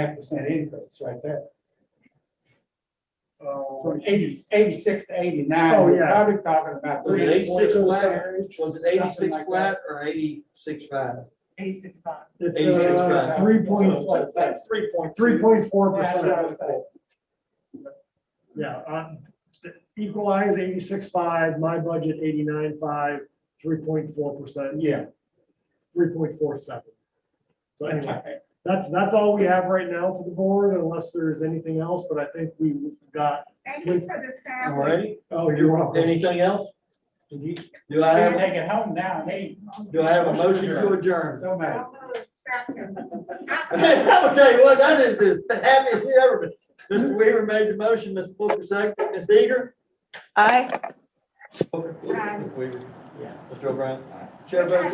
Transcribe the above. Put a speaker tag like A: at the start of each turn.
A: half percent increase right there.
B: Oh,
A: From 80 86 to eighty-nine.
B: Oh,
A: we're
B: yeah.
A: Probably talking about
C: Was it
A: three, four
C: 86
A: percent.
C: Was it
A: Something
C: eighty-six
A: like
C: flat or eighty-six five?
D: Eighty-six five.
B: It's
C: 86
B: uh,
C: grand.
B: three point,
A: So it's like Three point.
B: three point four
A: That's
B: percent.
A: what I was saying.
B: Yeah, uh, equalize eighty-six five, my budget eighty-nine five, three point four percent,
A: Yeah.
B: three point four seven. So anyway, that's, that's all we have right now for the board unless there's anything else, but I think we got.
D: Thank you for the sample.
C: Alrighty,
B: Oh, you're
C: anything else? Did you- Do I
A: They're
C: have,
A: taking home now, they.
C: do I have a motion to adjourn?
A: So much.
C: I will tell you what, that is the happiest we ever been. Mr. Weaver made the motion, Ms. Booker seconded, Ms. Eager?
E: Aye.
C: Booker,
D: Aye.
C: Weaver,
A: Yeah.
C: Mr. O'Brien. Chair votes